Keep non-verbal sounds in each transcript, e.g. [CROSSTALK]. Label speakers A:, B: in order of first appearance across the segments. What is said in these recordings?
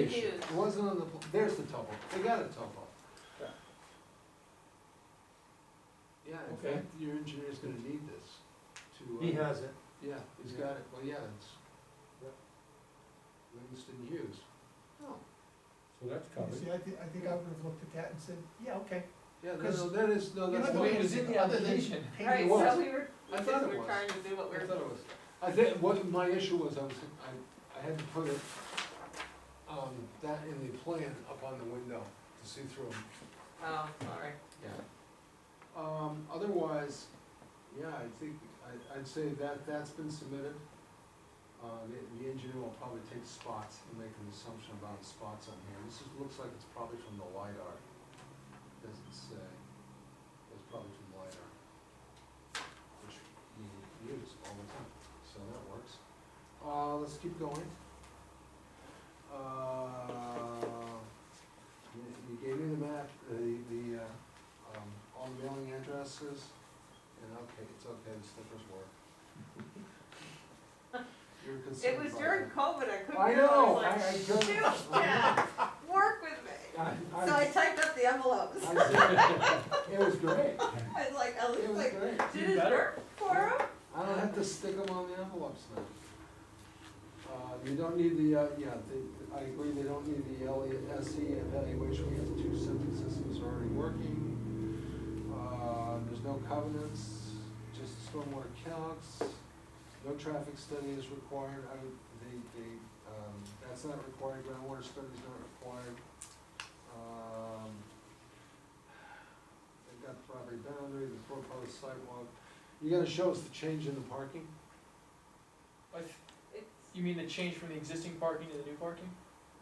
A: It wasn't on the, pl- there's the topo, they got a topo.
B: Yeah.
A: Yeah, in
B: Okay.
A: fact, your engineer's gonna need this to. uh,
C: He has it.
A: Yeah, he's
C: Yeah.
A: got it, well, yeah, it's.
C: Yep.
A: Livingston Hughes. Oh,
B: So that's
D: You see, I think, I think I would have looked at that and said, yeah, okay.
A: yeah, no, no,
D: 'Cause
A: that is, no,
D: You're
A: that's
D: not
A: the
D: the
A: way
D: one
A: it
D: who's
A: is.
D: in the
A: Other than-
D: application.
A: It
E: Right,
A: was.
E: so we
A: I
E: were, we
A: thought
E: just
A: it
E: were
A: was.
E: trying to do what we
A: I
E: were,
A: thought it was, I think, what my issue was, I was, I, I had to put it, um, that in the plan up on the window to see through 'em.
E: oh, sorry.
A: Yeah. Um, otherwise, yeah, I think, I, I'd say that, that's been submitted. Uh, the, the engineer will probably take spots and make an assumption about spots on here, this is, looks like it's probably from the LiDAR. Doesn't say, it's probably from LiDAR. Which we use all the time, so that works. Uh, let's keep going. Uh, you you gave me the map, the, the, uh, um, all the mailing addresses, and okay, it's okay, the stickers
E: [LAUGHS]
A: work. You were concerned
E: It was
A: about
E: during
A: that.
E: COVID, I couldn't.
A: I
E: do it. was
A: know,
E: like,
A: I- I couldn't-
E: "Shoot, yeah, work with me.
A: I, I,
E: So I typed up the envelopes.
A: I said- it was great,
E: [LAUGHS] I was like, I
A: it
E: was
A: was
E: like,
A: great.
E: did it work for him?
A: I don't have to stick them on the envelopes now. Uh, you don't need the, uh, yeah, the, I agree, they don't need the E, LESE evaluation, we have two septic systems already working. Uh, there's no covenants, just stormwater calcs, no traffic study is required, I, would- they, they, um, that's not required, groundwater study's not required. Um, they've got property boundary, the proposed sidewalk, you gotta show us the change in the parking?
E: It's-
B: You mean the change from the existing parking to the new parking?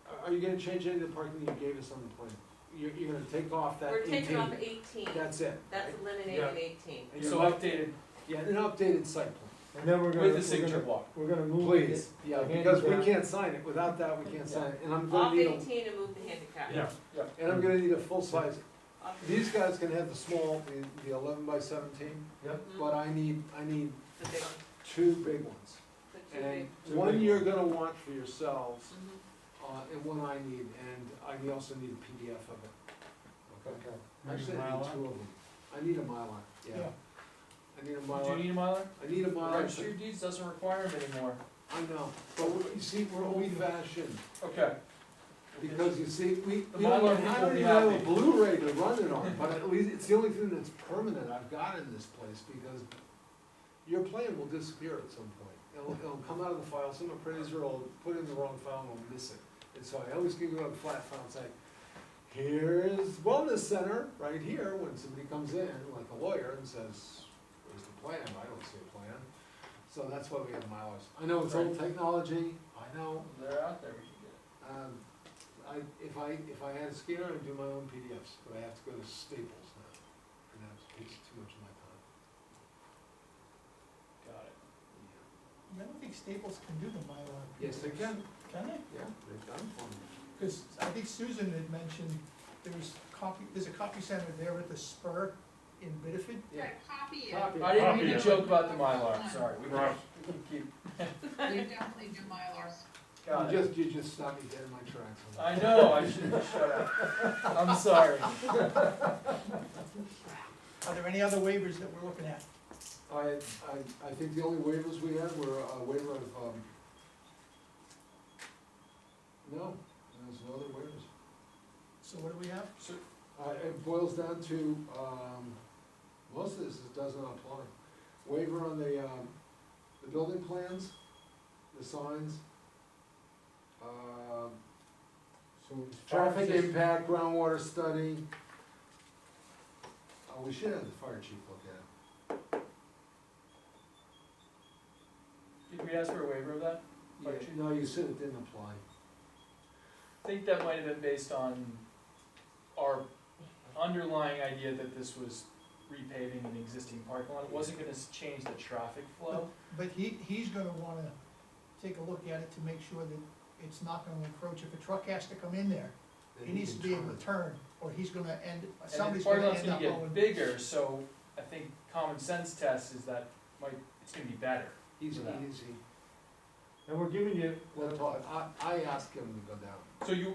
A: Are- Are you gonna change any of the parking you gave us on the plan? You're, you're gonna take off that
E: We're taking off
A: eighteen?
E: eighteen,
A: That's it?
E: that's
B: Yeah.
E: eliminated eighteen.
A: And
B: So
A: you-
B: updated
A: Yeah, an updated site plan,
C: And then we're gonna,
B: with
C: we're
B: the signature
C: gonna,
B: block.
C: we're gonna move it.
A: please. Yeah,
C: the
A: because we
C: handicap.
A: can't sign it, without that, we can't sign it, and I'm
E: Off
A: gonna need, a-
E: eighteen and move the handicap.
B: Yeah.
A: and I'm gonna need a full size.
E: Off the-
A: These guys can have the small, the, the eleven by seventeen,
E: Mhm,
A: but I need, I need
E: The big one,
A: two big ones.
E: the two
A: And
E: big.
B: Two
A: one
B: big
A: you're
B: ones.
A: gonna want for yourselves,
E: Mhm.
A: uh, and one I need, and I also need a PDF of it. Okay. Actually, I need two of them. I need a Mylar, yeah.
D: Yeah.
A: I need a
B: Do you
A: Mylar,
B: need a Mylar?
A: I need a
B: Registry
A: Mylar,
B: of deeds doesn't require them anymore.
A: I know, but we- you see, we're old fashioned,
B: Okay.
A: because you see, we,
B: The
A: we don't,
B: Mylar
A: I
B: people
A: don't
B: be
A: even have a
B: happy.
A: Blu-ray to run it on, but at least it's the only thing that's permanent I've got in this place, because your plan will disappear at some point, it'll, it'll come out of the file, some appraiser will put in the wrong file and will miss it, and so I always can go to the flat file and say, here's wellness center, right here, when somebody comes in, like a lawyer, and says, where's the plan, I don't see a plan. So that's why we have milers, I know it's old technology, I know,
B: They're out there, we can get
A: um, I, if I, if I had a scanner, I'd do my own PDFs, but I have to go to Staples now, and that takes too much of my time.
B: it. Got it.
D: I don't think Staples can do the Mylar.
A: Yes, they can,
D: Can they?
A: yeah, they've done it for me.
D: Because I think Susan had mentioned there was copy, there's a copy center there at the Spur in Biddeford.
A: Yeah,
F: Copy it.
A: Copy it.
B: I didn't mean to
F: Yeah.
B: joke about the Mylar, sorry. We can,
C: Right.
B: we can keep,
F: They definitely do Mylars.
B: got
A: you
B: it.
A: just, you just stopped me dead in my tracks.
B: I know, I should, shut up. I'm sorry.
D: Are there any other waivers that we're looking at?
A: I, I, I think the only waivers we had were a waiver of, um, no, there's no other waivers.
D: So what do we have?
B: So,
A: Uh, it boils down to, um, most of this is- does not apply. Waiver on the, um, the building plans, the signs, um,
C: So-
A: traffic impact, groundwater study. Uh, we should have the fire chief look at it.
B: Did we ask for a waiver of that? Fire
A: Yeah,
B: chief?
A: No, you said it didn't apply.
B: I think that might have been based on our underlying idea that this was repaving an existing parking lot. It wasn't gonna s- change the traffic flow.
D: But he, he's gonna wanna take a look at it to make sure that it's not gonna encroach. If a truck has to come in there,
A: Then
D: he
A: you
D: needs
A: can
D: to be able
A: turn.
D: to turn, or he's gonna end,
B: And the
D: somebody's
B: parking
D: gonna
B: lot's
D: end
B: gonna
D: up
B: get
D: owing.
B: bigger, so I think common sense test is that might, it's gonna be better.
A: He's
B: for that.
A: easy.
C: And we're giving you,
A: We'll talk. I, I asked him to go down.
B: So you,